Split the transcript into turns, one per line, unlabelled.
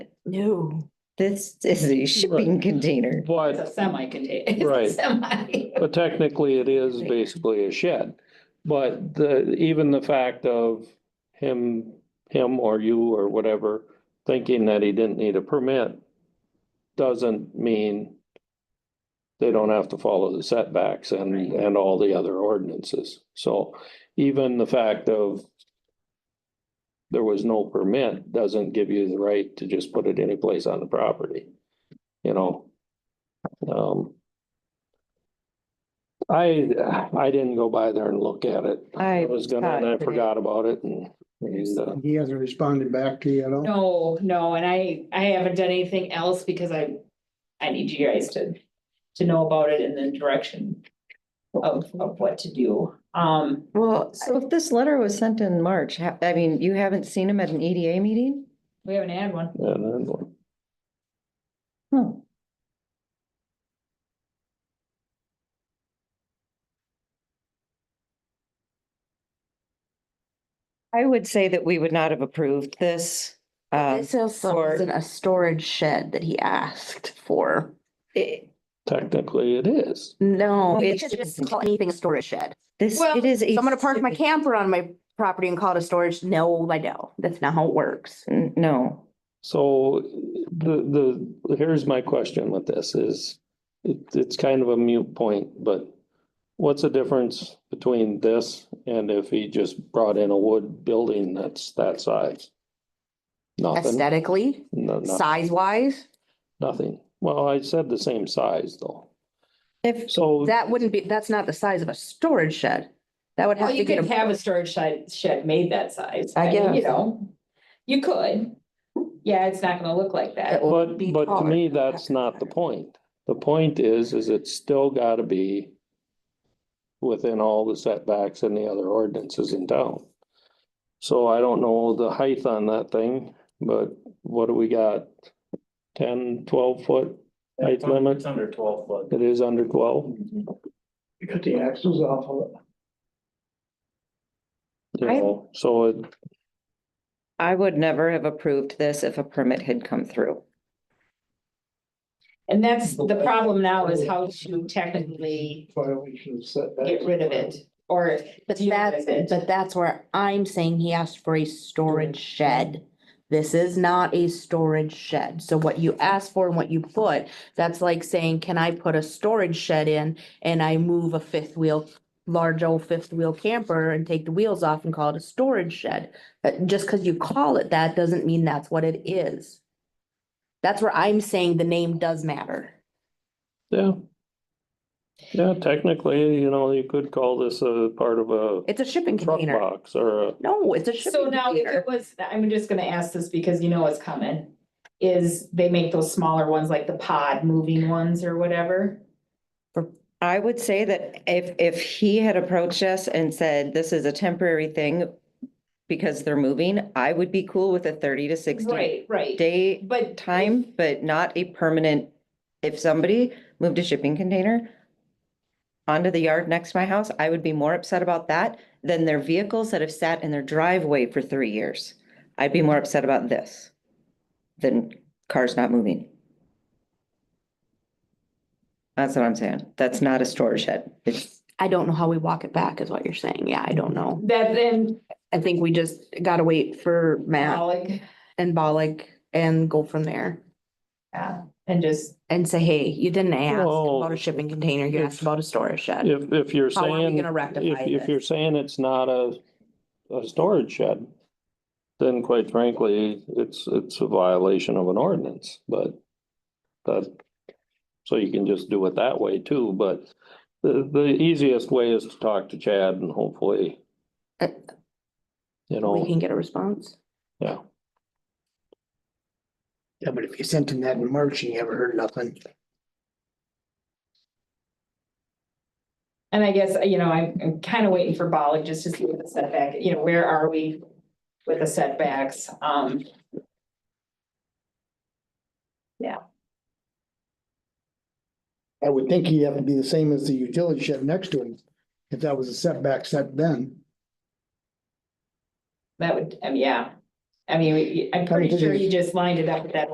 No.
This is a shipping container.
But
It's a semi container.
Right.
Semi.
But technically, it is basically a shed. But the, even the fact of him, him or you or whatever, thinking that he didn't need a permit doesn't mean they don't have to follow the setbacks and,
Right.
and all the other ordinances. So even the fact of there was no permit doesn't give you the right to just put it any place on the property, you know? Um, I, I didn't go by there and look at it.
I
I was gonna, and I forgot about it and, and, uh,
He hasn't responded back to you at all?
No, no, and I, I haven't done anything else because I, I need you guys to, to know about it and the direction of, of what to do. Um,
Well, so if this letter was sent in March, ha- I mean, you haven't seen him at an EDA meeting?
we haven't had one.
and then-
Huh. I would say that we would not have approved this. um,
This also
for-
isn't a storage shed that he asked for.
it-
technically it is.
No,
Well,
it's
it's just-
just call anything a storage shed.
This,
Well,
it is. a
So I'm gonna park my
shipping-
camper on my property and call it a storage. No, I don't. That's not how it works.
N- No,
So the, the, here's my question with this is, it, it's kind of a mute point, but what's the difference between this and if he just brought in a wood building that's that size? Nothing,
Aesthetically,
no, no,
size wise,
nothing. Well, I said the same size though.
if,
So
that wouldn't be, that's not the size of a storage shed. That would
Well,
have to
you
get
could
a,
have a storage shed, shed made that size.
I
I mean, You
guess.
know, you could. Yeah, it's not gonna look like that.
It will
But,
be
but to
taller.
me, that's not the point. The point is, is it's still gotta be within all the setbacks and the other ordinances in town. So I don't know the height on that thing, but what do we got? Ten, twelve foot? Height
It's un-
limit?
It's under twelve foot.
It is under twelve?
You got the axles off of it.
you
I-
know? So it,
I would never have approved this if a permit had come through.
And that's, the problem now is how to technically
Violation of setbacks.
get rid of it or
but
deal with
that's,
it.
but that's where I'm saying he asked for a storage shed. This is not a storage shed. So what you ask for and what you put, that's like saying, can I put a storage shed in? And I move a fifth wheel, large old fifth wheel camper and take the wheels off and call it a storage shed. Uh, just because you call it that doesn't mean that's what it is. That's where I'm saying the name does matter.
yeah. Yeah, technically, you know, you could call this a part of a
It's a shipping
truck
container.
box or a,
No, it's a
So
shipping
now if
container.
it was, I'm just gonna ask this because you know what's coming. Is they make those smaller ones like the pod moving ones or whatever.
I would say that if, if he had approached us and said, this is a temporary thing because they're moving, I would be cool with a thirty to sixty
Right, right.
day
But
time, but not a permanent. If somebody moved a shipping container onto the yard next to my house, I would be more upset about that than their vehicles that have sat in their driveway for three years. I'd be more upset about this than cars not moving. That's what I'm saying. That's not a storage shed. It's,
I don't know how we walk it back is what you're saying. Yeah, I don't know.
that then,
I think we just gotta wait for Matt
Alec,
and Bollig and go from there
yeah, and just,
and say, hey, you didn't ask
Well,
about a shipping container, you asked
if-
about a storage shed.
If, if you're
How are we
saying,
gonna rectify
if, if
this?
you're saying it's not a, a storage shed, then quite frankly, it's, it's a violation of an ordinance, but that, so you can just do it that way too, but the, the easiest way is to talk to Chad and hopefully,
Uh,
you
We
know,
can get a response.
yeah.
Yeah, but if you sent him that in March and you haven't heard nothing.
and I guess, you know, I'm, I'm kind of waiting for Bollig just to see what the setback, you know, where are we with the setbacks? Um,
I would think he'd have to be the same as the utility shed next to him, if that was a setback set then.
that would, um, yeah. I mean, we- I'm
I mean,
pretty
this
sure
is-
he just lined it up with that